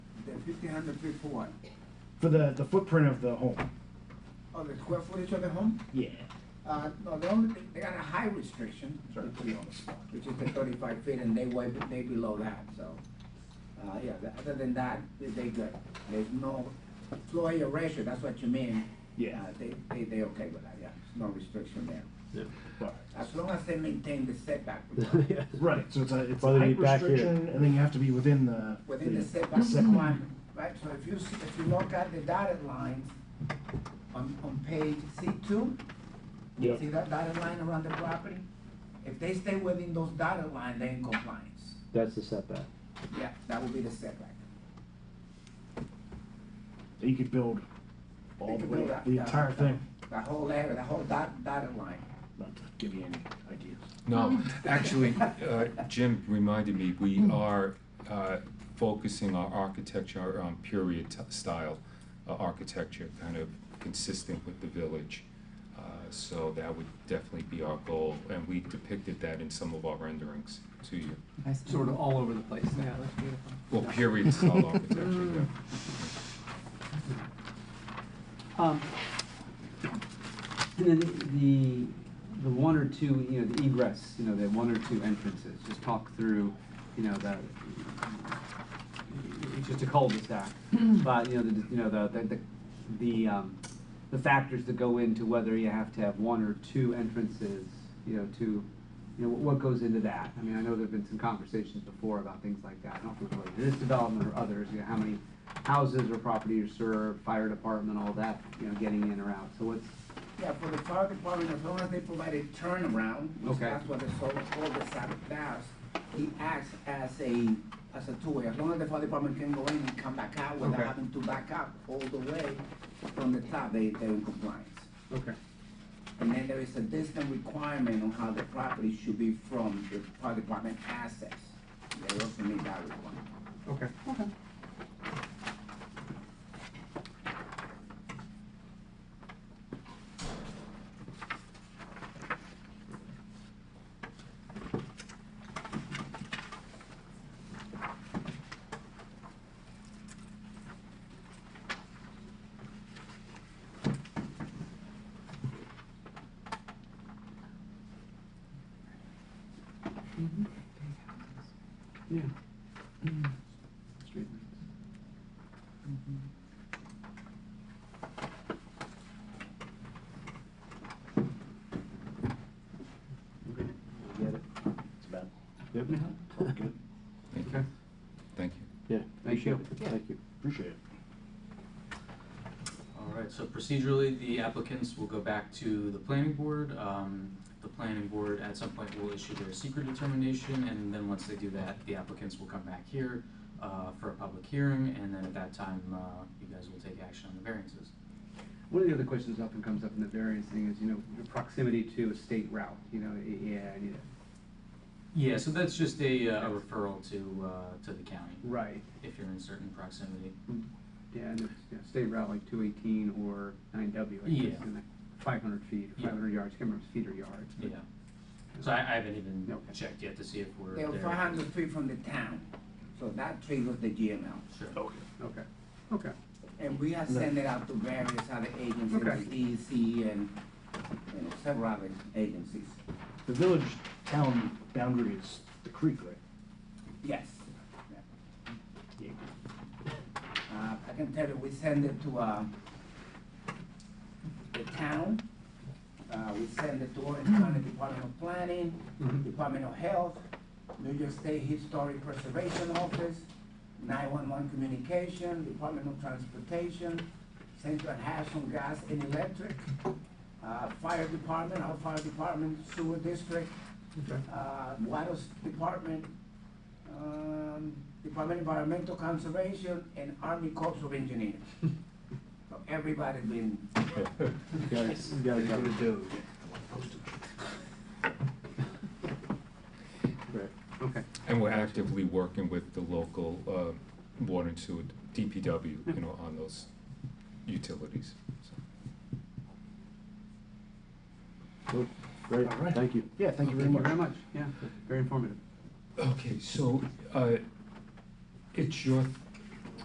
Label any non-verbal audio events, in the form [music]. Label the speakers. Speaker 1: Fifteen hundred feet for what?
Speaker 2: for the, the footprint of the home.
Speaker 1: Oh, the square footage of the home?
Speaker 2: Yeah.
Speaker 1: Uh, no, they only, they got a high restriction,
Speaker 2: Sorry.
Speaker 1: which is the thirty-five feet, and they way, they below that, so. Uh, yeah, tha- other than that, they, they good. There's no floor area ratio, that's what you mean.
Speaker 2: Yeah.
Speaker 1: Uh, They, they, they okay with that, yeah, no restriction there.
Speaker 2: But-
Speaker 1: As long as they maintain the setback. [laughs]
Speaker 3: Yeah.
Speaker 2: Right, so it's a, it's a
Speaker 3: Whether you
Speaker 2: height
Speaker 3: back here.
Speaker 2: restriction, and then you have to be within the.
Speaker 1: within the setback
Speaker 2: setback.
Speaker 1: requirement, right? So if you, see- if you look at the dotted lines on, on page C two,
Speaker 3: Yep.
Speaker 1: see that dotted line around the property? If they stay within those dotted lines, they're in compliance.
Speaker 3: That's the setback.
Speaker 1: Yeah, that would be the setback.
Speaker 2: That you could build
Speaker 1: They
Speaker 2: all the
Speaker 1: could build
Speaker 2: way,
Speaker 1: that-
Speaker 2: the
Speaker 1: that-
Speaker 2: entire
Speaker 1: that-
Speaker 2: thing.
Speaker 1: That whole area, that whole dot, dotted line.
Speaker 2: Not to give you any ideas.
Speaker 4: No, actually, uh, Jim reminded me, we are uh, focusing our architecture on period t- style uh, architecture, kind of consistent with the village. Uh, So that would definitely be our goal, and we depicted that in some of our renderings to you.
Speaker 5: Sort of all over the place. Yeah, that's beautiful.
Speaker 4: Well, period style architecture, yeah.
Speaker 5: Um, and then the, the one or two, you know, the egress, you know, the one or two entrances, just talk through, you know, the, it's just a cul-de-sac, but, you know, the, you know, the, the, the, um, the factors that go into whether you have to have one or two entrances, you know, to, you know, what goes into that? I mean, I know there've been some conversations before about things like that, I don't know if it's related to this development or others, you know, how many houses or property are served, fire department, all that, you know, getting in or out, so what's,
Speaker 1: Yeah, for the fire department, as long as they provide a turnaround, which
Speaker 5: Okay.
Speaker 1: that's what the so-called the side does, he acts as a, as a two-way. As long as the fire department can go in and come back out without
Speaker 5: Okay.
Speaker 1: having to back up all the way from the top, they, they're in compliance.
Speaker 5: okay,
Speaker 1: And then there is a distance requirement on how the property should be from the fire department assets. They also meet that requirement.
Speaker 5: okay. Okay. Yeah. Street lights.
Speaker 3: Mm-hmm.
Speaker 5: Okay, I get it.
Speaker 2: It's bad. [laughs]
Speaker 3: Yep.
Speaker 2: Good.
Speaker 4: Thank you,
Speaker 5: Okay,
Speaker 4: thank you.
Speaker 3: Yeah.
Speaker 5: Thank you.
Speaker 3: appreciate it. Thank you.
Speaker 2: Appreciate it.
Speaker 6: All right, so procedurally, the applicants will go back to the planning board. Um, the planning board at some point will issue their secret determination, and then once they do that, the applicants will come back here, uh, for a public hearing, and then at that time, uh, you guys will take action on the variances.
Speaker 5: One of the other questions that often comes up in the variance thing is, you know, your proximity to a state route, you know, y- yeah, and, you know,
Speaker 6: Yeah, so that's just a, uh, a referral to, uh, to the county,
Speaker 5: right,
Speaker 6: if you're in certain proximity.
Speaker 5: yeah, and it's, you know, state route like two eighteen or nine W, I guess,
Speaker 6: Yeah.
Speaker 5: and like five hundred feet,
Speaker 6: Yeah.
Speaker 5: five hundred yards, can't remember if it's feet or yards. but-
Speaker 6: Yeah. So I, I haven't even
Speaker 5: Okay.
Speaker 6: checked yet to see if we're
Speaker 1: They're
Speaker 6: there.
Speaker 1: five hundred feet from the town, so that triggers the GML.
Speaker 6: Sure.
Speaker 5: Okay, okay,
Speaker 1: And we are sending it out to various other
Speaker 5: Okay.
Speaker 1: agencies, the DEC and, you know, several other agencies.
Speaker 2: The village town boundary is the creek, right?
Speaker 1: Yes.
Speaker 2: Yeah.
Speaker 1: Uh, I can tell you, we send it to, uh, the town, uh, we send it to Orange County Department of Planning,
Speaker 5: Mhm.
Speaker 1: Department of Health, New York State Historic Preservation Office, nine-one-one Communication, Department of Transportation, Central National Gas and Electric, uh, Fire Department, our Fire Department, Sewer District,
Speaker 5: okay.
Speaker 1: uh, Water Department, um, Department of Environmental Conservation, and Army Corps of Engineers. So everybody's been,
Speaker 2: You gotta go to do.
Speaker 5: Okay,
Speaker 4: And we're actively working with the local uh, water and sewer, DPW, you know, on those utilities, so.
Speaker 3: Cool. Great,
Speaker 2: All right.
Speaker 3: thank you.
Speaker 2: Yeah, thank you very
Speaker 5: thank you very
Speaker 2: much.
Speaker 5: much, yeah, very informative.
Speaker 4: Okay, so, uh, it's your